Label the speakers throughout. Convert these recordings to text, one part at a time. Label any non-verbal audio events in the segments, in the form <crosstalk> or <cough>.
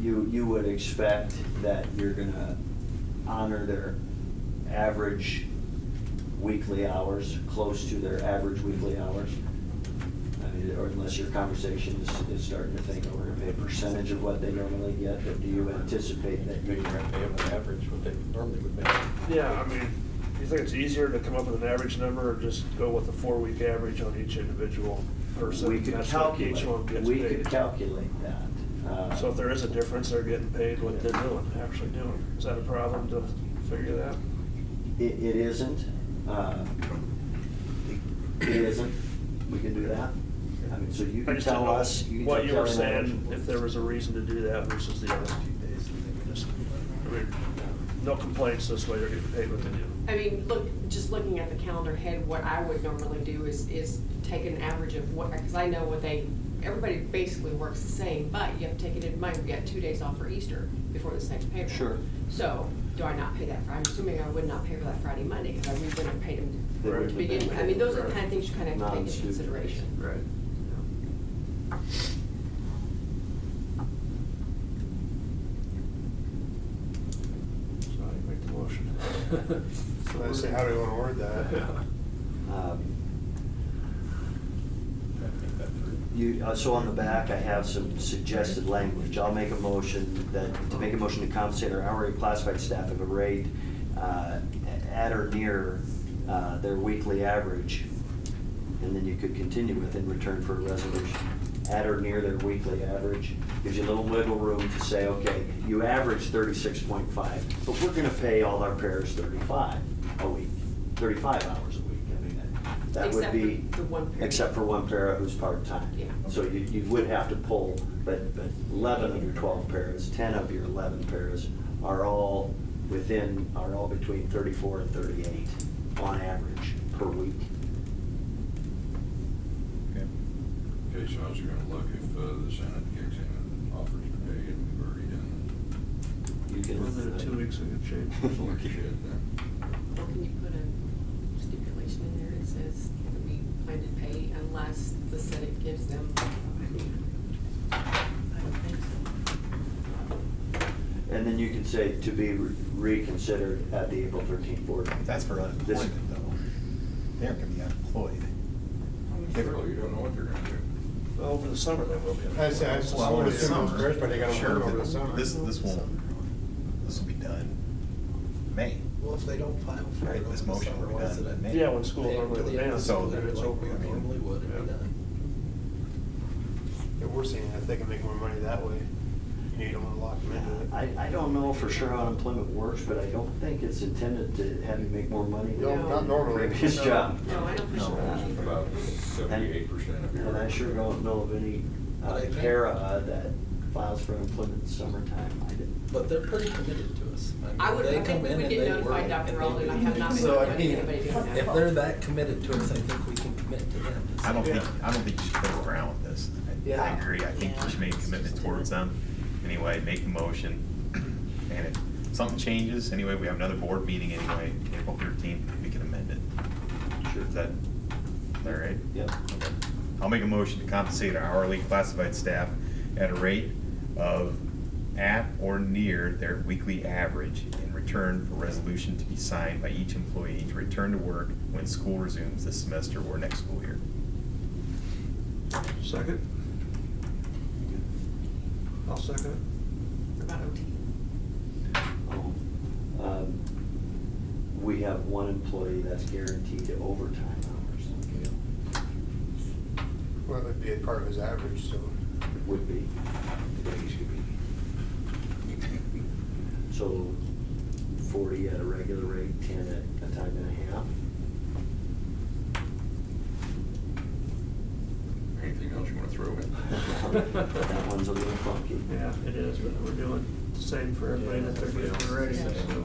Speaker 1: you, you would expect that you're gonna honor their average weekly hours, close to their average weekly hours. I mean, or unless your conversation is, is starting to think, oh, we're gonna pay a percentage of what they normally get, but do you anticipate that
Speaker 2: Maybe
Speaker 1: you?
Speaker 2: you're gonna pay them an average, what they normally would make.
Speaker 3: Yeah, I mean, do you think it's easier to come up with an average number or just go with a four-week average on each individual person?
Speaker 1: We could
Speaker 3: That's what Each one
Speaker 1: calculate,
Speaker 3: gets
Speaker 1: we could
Speaker 3: paid.
Speaker 1: calculate that. uh,
Speaker 3: So if there is a difference, they're getting paid what they're doing, actually doing. Is that a problem to figure that?
Speaker 1: It, it isn't. uh, It isn't. We can do that. I mean, so you
Speaker 3: I
Speaker 1: can
Speaker 3: just didn't
Speaker 1: tell
Speaker 3: know
Speaker 1: us. can
Speaker 3: What
Speaker 1: tell
Speaker 3: you were
Speaker 1: Kelly and I what
Speaker 3: saying,
Speaker 1: you-
Speaker 3: if there was a reason to do that versus the other. Just- I mean, No complaints this way, they're getting paid what they do.
Speaker 4: I mean, look, just looking at the calendar head, what I would normally do is, is take an average of what, because I know what they, everybody basically works the same, but you have to take it in mind, we got two days off for Easter before this next payroll.
Speaker 1: Sure.
Speaker 4: So, do I not pay that Friday? I'm assuming I would not pay for that Friday, Monday, because we wouldn't have paid them
Speaker 1: They
Speaker 3: Right.
Speaker 4: to begin with. I mean, those are the kind of things you kind of have to take into
Speaker 1: Non-student.
Speaker 4: consideration.
Speaker 3: Right. So I make the motion.
Speaker 5: So <laughs> I say, how do we wanna
Speaker 2: <laughs>
Speaker 3: <laughs>
Speaker 5: word that?
Speaker 1: Um, You, uh, so on the back, I have some suggested language. I'll make a motion that, to make a motion to compensate our hourly classified staff at a rate uh, at or near uh, their weekly average. And then you could continue with in return for a resolution, at or near their weekly average. Gives you a little wiggle room to say, okay, you average thirty-six point five, but we're gonna pay all our pairs thirty-five a week, thirty-five hours a week. I mean, that- that would
Speaker 4: Except
Speaker 1: be.
Speaker 4: for the one pair.
Speaker 1: Except for one para who's part-time.
Speaker 4: Yeah.
Speaker 1: So you, you would have to pull, but, but eleven of your twelve paras, ten of your eleven paras are all within, are all between thirty-four and thirty-eight on average per week.
Speaker 6: Okay, so how's it gonna look if uh, the Senate kicks in and offers to pay it, we've already done
Speaker 1: You can-
Speaker 3: Within the two weeks, we can
Speaker 6: the
Speaker 3: change.
Speaker 6: full shit then?
Speaker 4: Or can you put a stipulation in there that says that we plan to pay unless the Senate gives them?
Speaker 1: <laughs> And then you can say to be re- reconsidered at the April thirteenth board. meeting.
Speaker 5: That's for unemployment though. They're gonna be unemployed.
Speaker 6: Well, you don't know what they're gonna do.
Speaker 3: Well, Over the summer, that will be.
Speaker 5: I say, I just wanted to summer, but they gotta
Speaker 7: Sure,
Speaker 5: work over the
Speaker 7: but
Speaker 5: summer.
Speaker 7: This, this won't, this will be done May.
Speaker 8: Well, if they don't file for
Speaker 7: Right,
Speaker 8: it
Speaker 7: this
Speaker 8: over the
Speaker 7: motion
Speaker 8: summer,
Speaker 7: will be
Speaker 8: why is
Speaker 7: done.
Speaker 8: it a
Speaker 3: Yeah, when school
Speaker 8: They-
Speaker 3: normally would
Speaker 8: yeah,
Speaker 3: end.
Speaker 7: So
Speaker 8: they're
Speaker 7: it's
Speaker 8: like
Speaker 7: open,
Speaker 8: we
Speaker 7: I mean-
Speaker 8: Normally would, it'd be
Speaker 3: Yeah.
Speaker 8: done.
Speaker 5: Yeah, we're seeing that they can make more money that way. You know, you don't wanna lock them into it.
Speaker 1: I, I don't know for sure how unemployment works, but I don't think it's intended to have you make more money
Speaker 5: No,
Speaker 1: than
Speaker 5: not normally.
Speaker 1: previous job.
Speaker 4: No, I don't
Speaker 7: No.
Speaker 4: think so.
Speaker 6: About seventy-eight percent of your.
Speaker 1: And I sure don't know of any uh,
Speaker 8: But I think-
Speaker 1: para uh, that files for employment in summertime. I didn't.
Speaker 8: But they're pretty committed to us. mean,
Speaker 4: I would-
Speaker 8: they
Speaker 4: I think
Speaker 8: come
Speaker 4: we
Speaker 8: in
Speaker 4: would
Speaker 8: and
Speaker 4: get
Speaker 8: they
Speaker 4: notified,
Speaker 8: work
Speaker 4: Dr.
Speaker 8: and they
Speaker 4: Rowley, and
Speaker 8: do
Speaker 4: I have not been
Speaker 8: So, I
Speaker 4: notified
Speaker 8: mean,
Speaker 4: anybody doing that.
Speaker 8: If they're that committed to us, I think we can commit to them.
Speaker 7: I don't think,
Speaker 5: Yeah.
Speaker 7: I don't think you should play around with this. I- I
Speaker 8: Yeah.
Speaker 7: agree, I think you should make a commitment towards them. Anyway, make the motion, and if something changes, anyway, we have another board meeting anyway, April thirteenth, we can amend it. Sure. Is that, is that right?
Speaker 1: Yep.
Speaker 7: Okay. I'll make a motion to compensate our hourly classified staff at a rate of at or near their weekly average in return for resolution to be signed by each employee to return to work when school resumes this semester or next school year.
Speaker 3: Second? I'll second it.
Speaker 4: About OT.
Speaker 1: Um, We have one employee that's guaranteed overtime hours,
Speaker 5: Well, it'd be a part of his average, so.
Speaker 1: would be. So forty at a regular rate, ten at a time and a half.
Speaker 6: Anything else you wanna throw
Speaker 5: <laughs>
Speaker 6: in?
Speaker 1: That one's a little funky.
Speaker 3: Yeah, it is, but we're doing the same for everybody that they're getting already,
Speaker 8: Yeah.
Speaker 3: so.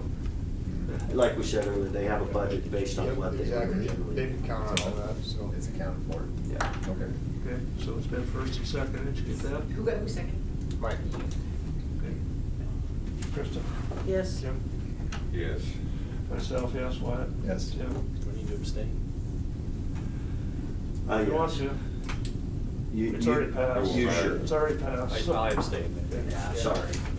Speaker 1: Like we said earlier, they have a budget based on
Speaker 5: Yep,
Speaker 1: what they.
Speaker 5: Exactly,
Speaker 1: originally-
Speaker 5: they can count on that, so.
Speaker 7: It's accounted for.
Speaker 1: Yeah.
Speaker 7: Okay.
Speaker 3: Okay, so it's been first and second, did you get that?
Speaker 4: Who got, who second?
Speaker 5: Mike,
Speaker 3: Okay. Krista?
Speaker 9: Yes.
Speaker 3: Jim?
Speaker 6: Yes.
Speaker 3: Myself, yes, Wyatt?
Speaker 7: Yes.
Speaker 3: Jim?
Speaker 8: We need to abstain.
Speaker 1: Uh,
Speaker 3: If you want
Speaker 1: yes.
Speaker 3: to.
Speaker 1: You-
Speaker 3: It's
Speaker 1: you-
Speaker 3: already passed.
Speaker 1: You should.
Speaker 3: It's already passed.
Speaker 2: I abstain.
Speaker 1: Yeah, sorry.